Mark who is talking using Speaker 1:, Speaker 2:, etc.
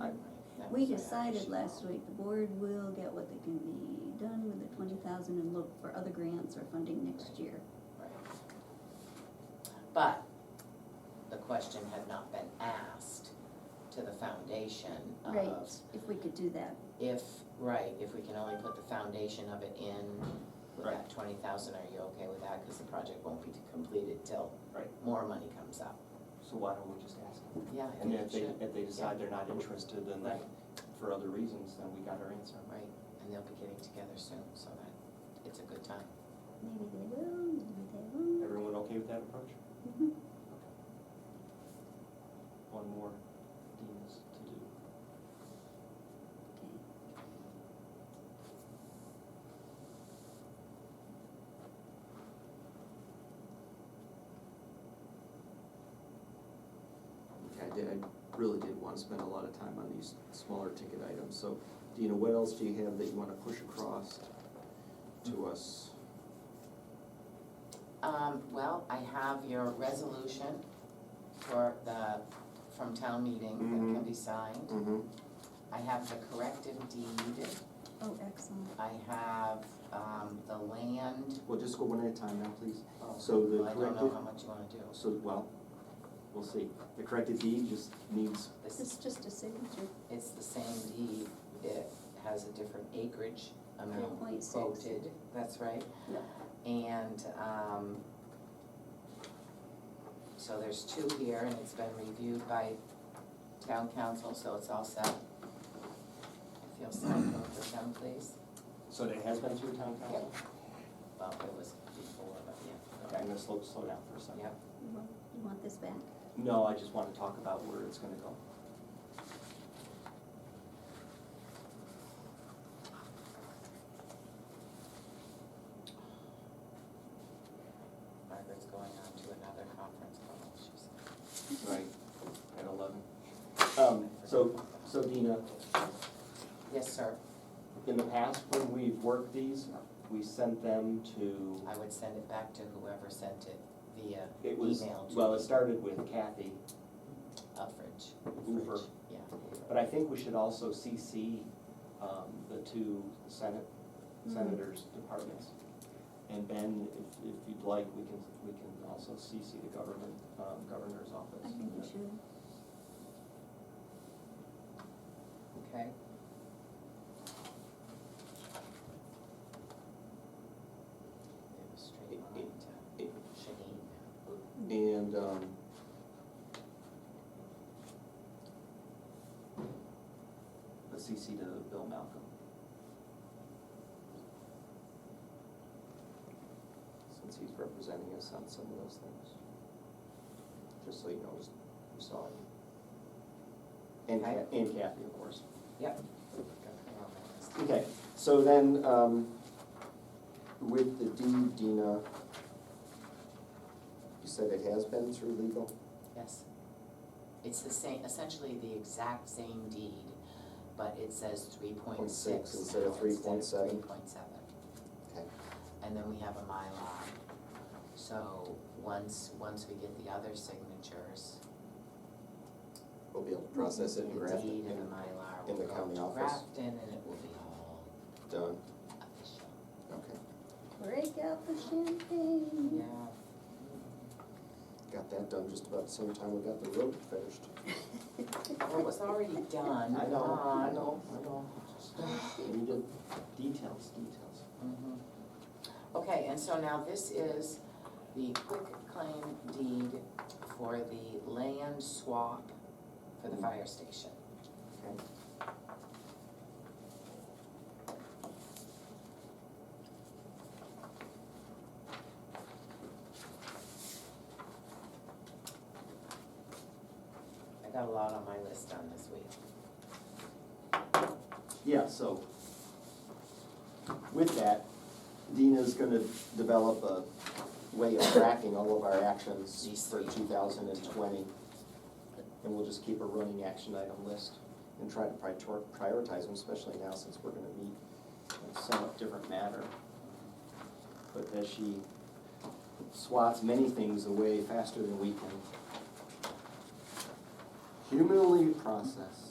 Speaker 1: I- that
Speaker 2: We
Speaker 1: was my
Speaker 2: decided
Speaker 1: understanding.
Speaker 2: last week, the board will get what they can be done with the twenty thousand and look for other grants or funding next year.
Speaker 1: Right. But the question had not been asked to the foundation
Speaker 2: Right,
Speaker 1: of
Speaker 2: Uh, if we could do that,
Speaker 1: if, right, if we can only put the foundation of it in with that
Speaker 3: Right.
Speaker 1: twenty thousand, are you okay with that? Cause the project won't be completed till
Speaker 3: Right.
Speaker 1: more money comes up.
Speaker 3: So why don't we just ask them?
Speaker 1: Yeah, I
Speaker 3: And
Speaker 1: think
Speaker 3: then
Speaker 1: it
Speaker 3: if they,
Speaker 1: should,
Speaker 3: if they decide they're not interested, then they,
Speaker 1: Right.
Speaker 3: for other reasons, then we got our answer.
Speaker 1: right, and they'll be getting together soon, so that, it's a good time.
Speaker 2: maybe they will, maybe they won't.
Speaker 3: Everyone okay with that approach?
Speaker 2: Mhm.
Speaker 3: One more Dean's to do.
Speaker 2: Okay.
Speaker 4: Okay, I did, I really did want to spend a lot of time on these smaller ticket items, so Dina, what else do you have that you want to push across to us?
Speaker 1: Um, well, I have your resolution for the, from town meeting that can
Speaker 4: Mhm.
Speaker 1: be signed.
Speaker 4: Mm-hmm.
Speaker 1: I have the corrective deed,
Speaker 2: Oh, excellent.
Speaker 1: I have, um, the land,
Speaker 4: Well, just go one at a time now, please.
Speaker 1: oh,
Speaker 4: So the
Speaker 1: well, I don't know
Speaker 4: corrective-
Speaker 1: how much you wanna do.
Speaker 4: So, well, we'll see. The corrected deed just needs,
Speaker 1: This
Speaker 2: This
Speaker 1: is,
Speaker 2: is just a signature,
Speaker 1: it's the same deed, it has a different acreage
Speaker 2: three
Speaker 1: amount
Speaker 2: point six.
Speaker 1: quoted, that's right?
Speaker 2: Yep.
Speaker 1: And, um, so there's two here, and it's been reviewed by town council, so it's all set. If you'll sign both of them, please,
Speaker 3: So that has been through town council?
Speaker 1: well, it was before, but yeah,
Speaker 3: Okay, I'm
Speaker 1: okay,
Speaker 3: gonna slow, slow down for a second.
Speaker 1: yeah.
Speaker 2: You want, you want this back?
Speaker 3: No, I just wanna talk about where it's gonna go.
Speaker 1: Margaret's going on to another conference call, she's.
Speaker 3: Right. At eleven. Um, so, so Dina,
Speaker 1: Yes, sir,
Speaker 3: in the past, when we've worked these, we sent them to,
Speaker 1: I would send it back to whoever sent it via
Speaker 3: it was,
Speaker 1: email to.
Speaker 3: well, it started with Kathy,
Speaker 1: Uffridge.
Speaker 3: Hoover.
Speaker 1: Uffridge, Yeah.
Speaker 3: But I think we should also CC um, the two senate,
Speaker 1: Mm-hmm.
Speaker 2: Mhm.
Speaker 3: senators' departments. And Ben, if, if you'd like, we can, we can also CC the government, um, governor's office.
Speaker 2: I think you should.
Speaker 1: Okay. It was straight
Speaker 4: It-
Speaker 1: line
Speaker 4: it-
Speaker 1: to
Speaker 4: it-
Speaker 1: Shanine.
Speaker 4: and, um,
Speaker 3: But CC to Bill Malcolm.
Speaker 4: since he's representing us on some of those things. Just so you know, we saw him.
Speaker 3: And Ca-
Speaker 1: Okay.
Speaker 3: and Kathy, of course.
Speaker 1: Yep. Got it wrong on this.
Speaker 4: Okay, so then, um, with the deed, Dina, you said it has been through legal?
Speaker 1: Yes. It's the same, essentially the exact same deed, but it says three point six.
Speaker 4: instead of 3.7.
Speaker 1: Three point seven.
Speaker 4: Okay.
Speaker 1: And then we have a Mylar. So once, once we get the other signatures,
Speaker 4: We'll be able to process it and
Speaker 1: the
Speaker 4: grant
Speaker 1: deed and
Speaker 4: it
Speaker 1: the
Speaker 4: and
Speaker 1: Mylar will
Speaker 4: in the
Speaker 1: go
Speaker 4: county
Speaker 1: to
Speaker 4: office.
Speaker 1: Grafton and it will be all
Speaker 4: done,
Speaker 1: official.
Speaker 4: okay,
Speaker 2: Break out the champagne.
Speaker 4: got that done just about the same time we got the road finished.
Speaker 1: Yeah, well, it was already done.
Speaker 4: I know, I
Speaker 1: on-
Speaker 4: know, I know. We did details, details.
Speaker 1: Mhm. Okay, and so now this is the quick claim deed for the land swap for the fire station.
Speaker 4: Okay.
Speaker 1: I got a lot on my list on this week.
Speaker 4: Yeah, so with that, Dina's gonna develop a way of tracking all of our actions for two thousand and twenty. And we'll just keep a running action item list and try to prior- prioritize them, especially now since we're gonna meet and sum up different matter. But as she swats many things away faster than we can humanly process.